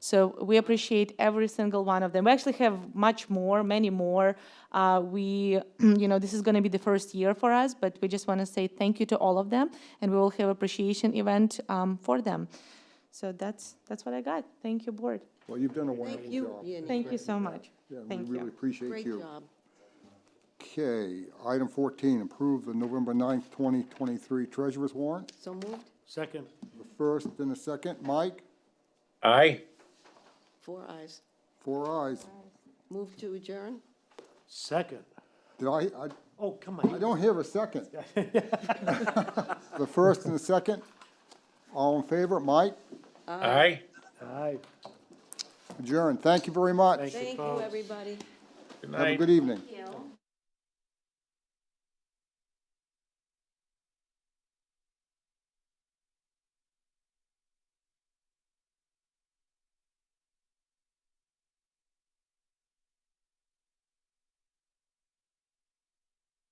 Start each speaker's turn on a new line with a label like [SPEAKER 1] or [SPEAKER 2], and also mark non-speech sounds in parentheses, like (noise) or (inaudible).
[SPEAKER 1] So we appreciate every single one of them. We actually have much more, many more. Uh, we, (clears throat) you know, this is going to be the first year for us, but we just want to say thank you to all of them, and we will have appreciation event um, for them. So that's that's what I got. Thank you, board.
[SPEAKER 2] Well, you've done a wonderful
[SPEAKER 3] you,
[SPEAKER 2] job.
[SPEAKER 3] Yanni.
[SPEAKER 1] Thank you so much.
[SPEAKER 2] Yeah, we
[SPEAKER 1] Thank
[SPEAKER 2] really
[SPEAKER 1] you.
[SPEAKER 2] appreciate
[SPEAKER 3] Great
[SPEAKER 2] you.
[SPEAKER 3] job.
[SPEAKER 2] Okay, item 14, approve the November 9th, 2023 treasurer's warrant.
[SPEAKER 3] So moved,
[SPEAKER 4] Second.
[SPEAKER 2] The first and the second, Mike,
[SPEAKER 5] Aye.
[SPEAKER 3] four eyes.
[SPEAKER 2] four ayes.
[SPEAKER 3] Move to adjourn?
[SPEAKER 4] Second.
[SPEAKER 2] Did I, I-
[SPEAKER 4] Oh, come
[SPEAKER 2] I
[SPEAKER 4] on.
[SPEAKER 2] don't hear a
[SPEAKER 3] (laughs)
[SPEAKER 2] second. The first and the second, all in favor, Mike,
[SPEAKER 5] Aye.
[SPEAKER 4] Aye.
[SPEAKER 2] adjourn. Thank you very much.
[SPEAKER 3] Thank you,
[SPEAKER 4] folks.
[SPEAKER 3] everybody.
[SPEAKER 5] Good
[SPEAKER 2] Have a
[SPEAKER 5] night.
[SPEAKER 2] good evening.